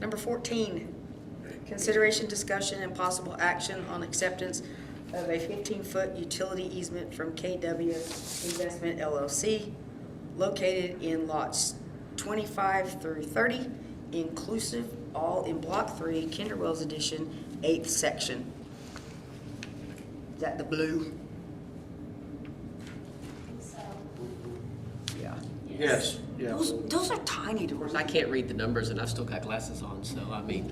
Number 14, consideration, discussion, and possible action on acceptance of a 15-foot utility easement from KW Investment LLC located in lots 25 through 30, inclusive, all in Block 3, Kinder Wells Edition, 8th Section. Is that the blue? So, Yeah. Yes, yeah. Those, those are tiny to I can't read the numbers and I've still got glasses on, so I mean.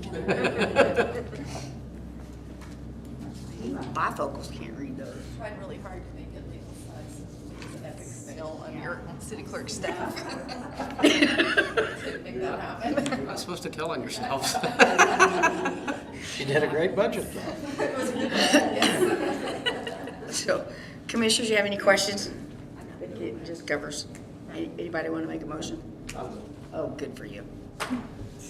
Even bifocals can't read those. Tried really hard to make it legal size. It's an epic fail on your city clerk staff. Couldn't make that happen. You're not supposed to tell on yourselves. You did a great budget though. So, commissioners, you have any questions? It- It just covers. Any- Anybody want to make a motion? Oh, good for you.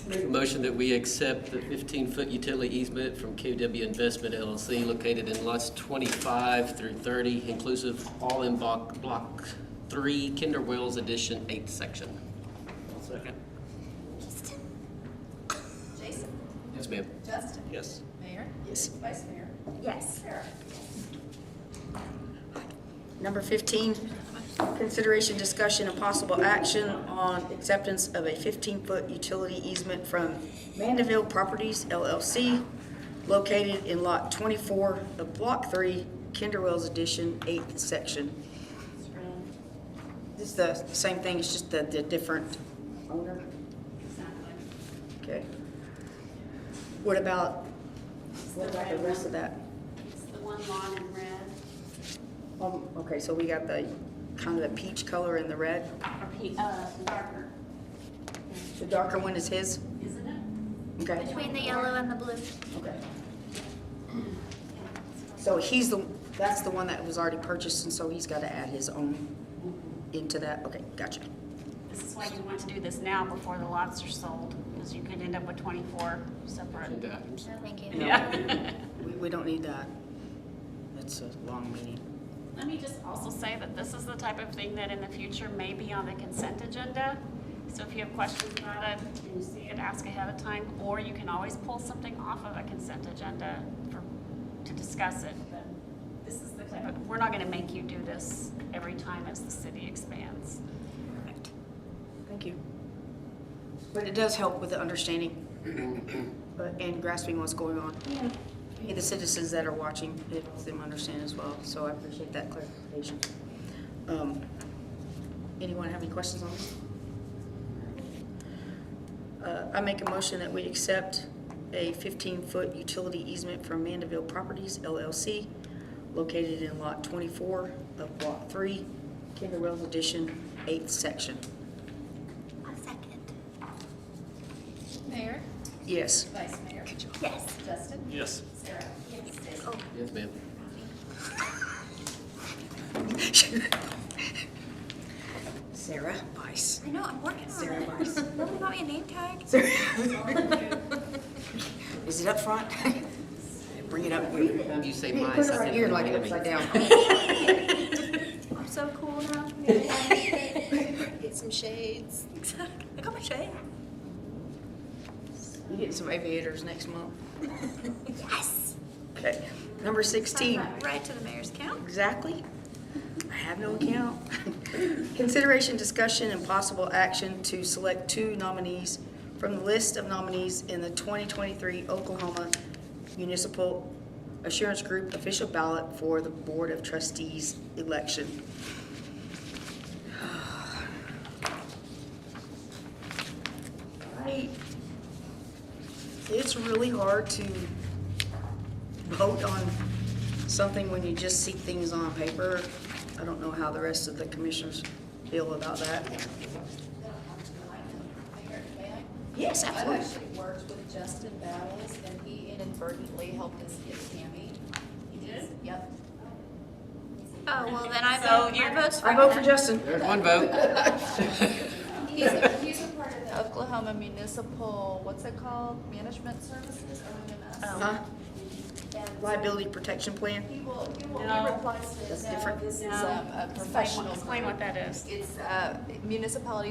Make a Motion that we accept the 15-foot utility easement from KW Investment LLC located in lots 25 through 30 inclusive, all in Block, Block 3, Kinder Wells Edition, 8th section. Jason, Yes, ma'am. Justin, Yes. Mayor, Yes. Vice Mayor, yes. Sarah. Number 15, consideration, discussion, and possible action on acceptance of a 15-foot utility easement from Mandeville Properties LLC located in Lot 24 of Block 3, Kinder Wells Edition, 8th Section. This is the same thing, it's just the the different owner? Okay. What about, what about the rest of that? It's the one lawn in red, Um, Okay, so we got the, kind of the peach color and the red. or pe- uh, darker, The darker one is his? isn't it? Okay, Between the yellow and the blue. okay. Yeah. So he's the, that's the one that was already purchased, and so he's got to add his own into that? Okay, gotcha. This is why you want to do this now before the lots are sold, because you could end up with twenty-four separate. Agenda items. Thank you. Yeah. We, we don't need that. That's a long meeting. Let me just also say that this is the type of thing that in the future may be on the consent agenda. So if you have questions about it, and you see it, ask ahead of time, or you can always pull something off of a consent agenda for, to discuss it. But This is the type of, we're not gonna make you do this every time as the city expands. Thank you. But it does help with the understanding uh, and grasping what's going on. And the citizens that are watching, it helps them understand as well, so I appreciate that clarification. Um, Anyone have any questions on this? Uh, I make a motion that we accept a 15-foot utility easement from Mandeville Properties LLC located in Lot 24 of Block 3, Kinder Wells Edition, 8th Section. A second. Mayor, Yes. Vice Mayor, Yes. Justin, Yes. Sarah. Yes. Oh, Yes, ma'am. Sarah Weiss. I know, I'm working on it. Sarah Weiss. Nobody got me a name tag. Is it up front? Bring it up. Put Anytime you say my, it I right think. here like it upside down. I'm so cool now. Get some shades. I got my shade. You getting some aviators next month. Yes. Okay, number sixteen. Right to the mayor's count. Exactly. I have no account. Consideration, discussion, and possible action to select two nominees from the list of nominees in the 2023 Oklahoma Municipal Assurance Group official ballot for the Board of Trustees election. I- It's really hard to vote on something when you just see things on paper. I don't know how the rest of the commissioners feel about that. Mayor, may I? Yes, I've absolutely. actually worked with Justin Battles, and he inadvertently helped us get Tammy. He did? Yep. Oh, well, then I So vote, you're- I vote for I vote for him. Justin. There's one vote. He's a, he's a part of the Oklahoma Municipal, what's it called, Management Services, Um, OMS? Huh? And Liability protection plan. He will, he will, No. he replies to, That's no, different. this is No. um, a Explain what- professional. Explain what that is. It's, uh, municipality